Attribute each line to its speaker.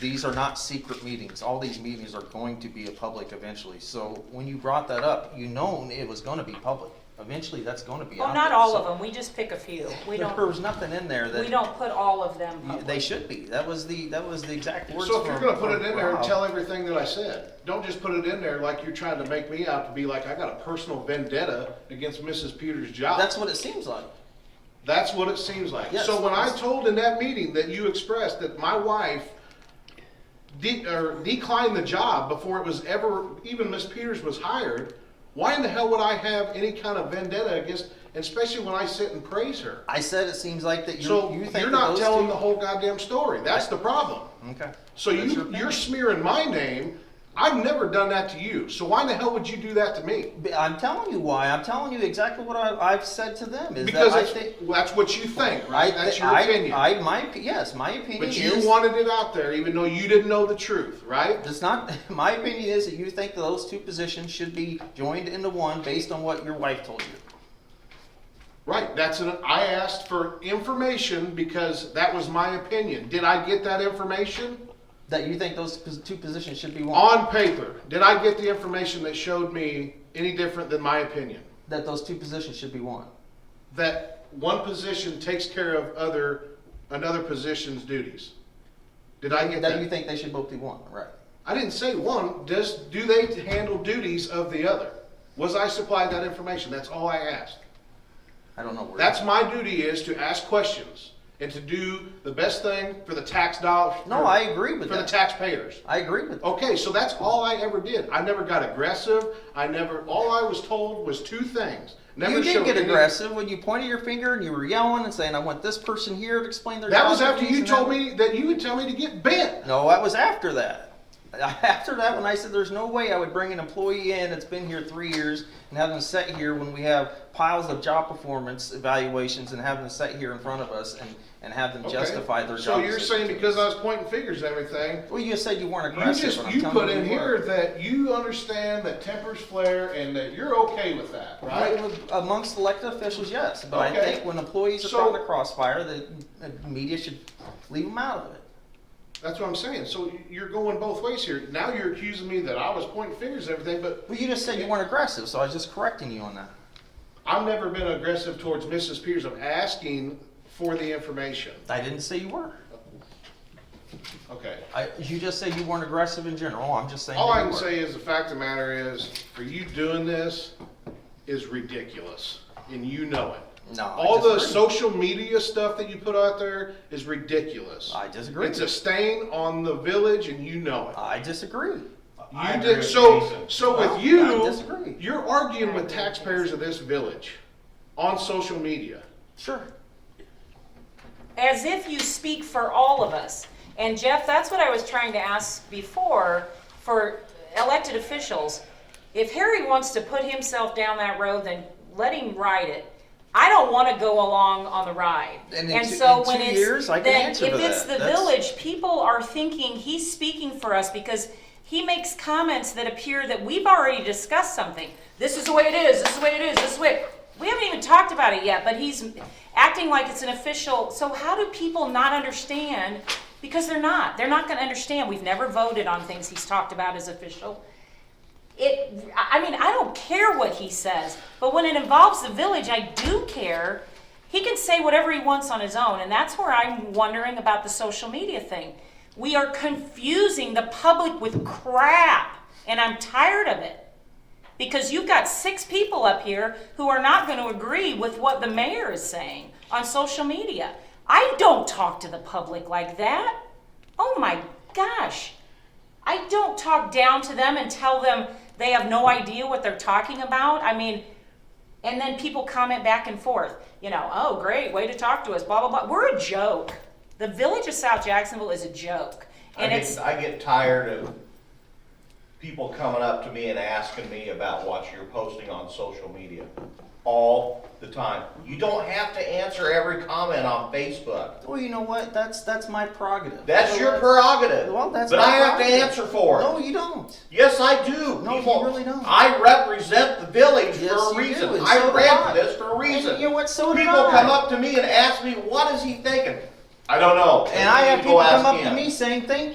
Speaker 1: These are not secret meetings. All these meetings are going to be a public eventually. So when you brought that up, you known it was gonna be public. Eventually, that's gonna be out
Speaker 2: Well, Oh, not
Speaker 1: there.
Speaker 2: all
Speaker 1: So
Speaker 2: of them, we just pick a few. We
Speaker 1: There
Speaker 2: don't,
Speaker 1: was nothing in there
Speaker 2: we
Speaker 1: that,
Speaker 2: don't put all of them
Speaker 1: you- they
Speaker 2: public.
Speaker 1: should be. That was the, that was the exact words
Speaker 3: So if you're
Speaker 1: from-
Speaker 3: gonna put
Speaker 1: from
Speaker 3: it in there,
Speaker 1: Rob.
Speaker 3: tell everything that I said. Don't just put it in there like you're trying to make me out to be like, I got a personal vendetta against Mrs. Peters' job.
Speaker 1: That's what it seems like.
Speaker 3: That's what it seems like.
Speaker 1: Yes.
Speaker 3: So when I told in that meeting that you expressed that my wife de- or declined the job before it was ever, even Miss Peters was hired, why in the hell would I have any kind of vendetta against, especially when I sit and praise her?
Speaker 1: I said it seems like that you,
Speaker 3: So
Speaker 1: you think
Speaker 3: you're
Speaker 1: that
Speaker 3: not
Speaker 1: those
Speaker 3: telling the
Speaker 1: two-
Speaker 3: whole goddamn story. That's the problem.
Speaker 1: Okay.
Speaker 3: So
Speaker 1: That's your
Speaker 3: you,
Speaker 1: opinion.
Speaker 3: you're smearing my name. I've never done that to you. So why in the hell would you do that to me?
Speaker 1: But I'm telling you why. I'm telling you exactly what I, I've said to them is
Speaker 3: Because
Speaker 1: that I
Speaker 3: it's-
Speaker 1: think.
Speaker 3: that's what you think,
Speaker 1: I,
Speaker 3: right? That's your
Speaker 1: I,
Speaker 3: opinion.
Speaker 1: I, my, op- yes, my opinion is-
Speaker 3: But you wanted it out there even though you didn't know the truth, right?
Speaker 1: It's not, my opinion is that you think that those two positions should be joined into one based on what your wife told you.
Speaker 3: Right, that's an, I asked for information because that was my opinion. Did I get that information?
Speaker 1: That you think those pos- two positions should be one,
Speaker 3: On paper, did I get the information that showed me any different than my opinion?
Speaker 1: that those two positions should be one.
Speaker 3: That one position takes care of other, another position's duties? Did I get
Speaker 1: That you
Speaker 3: that?
Speaker 1: think they should both be one, right?
Speaker 3: I didn't say one, does, do they handle duties of the other? Was I supplied that information? That's all I asked.
Speaker 1: I don't know where.
Speaker 3: That's my duty is to ask questions and to do the best thing for the tax dollars.
Speaker 1: No, I agree with
Speaker 3: For the
Speaker 1: that.
Speaker 3: taxpayers.
Speaker 1: I agree with,
Speaker 3: Okay, so that's all I ever did. I never got aggressive. I never, all I was told was two things. Never
Speaker 1: you did
Speaker 3: showed
Speaker 1: get
Speaker 3: any-
Speaker 1: aggressive when you pointed your finger and you were yelling and saying, I want this person here to explain their.
Speaker 3: That
Speaker 1: job
Speaker 3: was after
Speaker 1: duties
Speaker 3: you
Speaker 1: and that
Speaker 3: told
Speaker 1: was-"
Speaker 3: me that you would tell me to get bent.
Speaker 1: No, that was after that. After that, when I said there's no way I would bring an employee in that's been here three years and have them sit here when we have piles of job performance evaluations and have them sit here in front of us and, and have them
Speaker 3: Okay.
Speaker 1: justify their job.
Speaker 3: So you're
Speaker 1: decisions.
Speaker 3: saying because I was pointing fingers and everything,
Speaker 1: Well, you said you weren't
Speaker 3: you
Speaker 1: aggressive.
Speaker 3: just,
Speaker 1: and I'm
Speaker 3: you
Speaker 1: telling
Speaker 3: put in
Speaker 1: you were.
Speaker 3: here that you understand that tempers flare and that you're okay with that, right?
Speaker 1: Right, with- amongst elected officials, yes, but I
Speaker 3: Okay.
Speaker 1: think when employees are
Speaker 3: So-
Speaker 1: caught in the crossfire, the, the media should leave them out of it.
Speaker 3: That's what I'm saying. So you're going both ways here. Now you're accusing me that I was pointing fingers and everything, but
Speaker 1: Well, you just said you weren't aggressive, so I was just correcting you on that.
Speaker 3: I've never been aggressive towards Mrs. Peters. I'm asking for the information.
Speaker 1: I didn't say you were.
Speaker 3: Okay.
Speaker 1: I, you just said you weren't aggressive in general. Oh, I'm just saying.
Speaker 3: All
Speaker 1: that
Speaker 3: I
Speaker 1: you
Speaker 3: can
Speaker 1: were.
Speaker 3: say is the fact of the matter is, for you doing this is ridiculous, and you know it.
Speaker 1: No, I
Speaker 3: All the
Speaker 1: disagree.
Speaker 3: social media stuff that you put out there is ridiculous.
Speaker 1: I disagree.
Speaker 3: It's a stain on the village, and you know it.
Speaker 1: I disagree.
Speaker 4: I
Speaker 3: You
Speaker 4: agree
Speaker 3: did,
Speaker 4: with
Speaker 3: so,
Speaker 4: Jason.
Speaker 3: so
Speaker 1: No, I
Speaker 3: with you,
Speaker 1: disagree.
Speaker 3: you're arguing with taxpayers of this village on social media.
Speaker 1: Sure.
Speaker 2: As if you speak for all of us. And Jeff, that's what I was trying to ask before for elected officials. If Harry wants to put himself down that road, then let him ride it. I don't want to go along on the ride.
Speaker 1: And in
Speaker 2: And
Speaker 1: two-
Speaker 2: so
Speaker 1: in
Speaker 2: when
Speaker 1: two
Speaker 2: it's.
Speaker 1: years, I can
Speaker 2: then
Speaker 1: answer to
Speaker 2: If it's
Speaker 1: that.
Speaker 2: the
Speaker 1: That's-
Speaker 2: village, people are thinking he's speaking for us because he makes comments that appear that we've already discussed something. This is the way it is, this is the way it is, this is the way. We haven't even talked about it yet, but he's acting like it's an official. So how do people not understand? Because they're not. They're not gonna understand. We've never voted on things he's talked about as official. It, I I mean, I don't care what he says, but when it involves the village, I do care. He can say whatever he wants on his own, and that's where I'm wondering about the social media thing. We are confusing the public with crap, and I'm tired of it. Because you've got six people up here who are not going to agree with what the mayor is saying on social media. I don't talk to the public like that. Oh my gosh. I don't talk down to them and tell them they have no idea what they're talking about. I mean, and then people comment back and forth, you know, oh, great, way to talk to us, blah, blah, blah. We're a joke. The village of South Jacksonville is a joke.
Speaker 4: I
Speaker 2: And it's,
Speaker 4: get, I get tired of people coming up to me and asking me about what you're posting on social media all the time. You don't have to answer every comment on Facebook.
Speaker 1: Well, you know what? That's that's my prerogative.
Speaker 4: That's
Speaker 1: So
Speaker 4: your prerogative.
Speaker 1: Well, that's
Speaker 4: But
Speaker 1: my
Speaker 4: I have to
Speaker 1: prerogative.
Speaker 4: answer for
Speaker 1: No,
Speaker 4: it.
Speaker 1: you don't.
Speaker 4: Yes, I do.
Speaker 1: No, you
Speaker 4: People-
Speaker 1: really don't.
Speaker 4: I represent the village
Speaker 1: Yes,
Speaker 4: for a
Speaker 1: you
Speaker 4: reason.
Speaker 1: do, and so
Speaker 4: I
Speaker 1: do
Speaker 4: ran
Speaker 1: I.
Speaker 4: for this for a reason.
Speaker 1: And you know what? So did
Speaker 4: People
Speaker 1: I.
Speaker 4: come up to me and ask me, what is he thinking? I don't know.
Speaker 1: And I have
Speaker 4: You go
Speaker 1: people come
Speaker 4: ask
Speaker 1: up to
Speaker 4: him.
Speaker 1: me saying, "Thank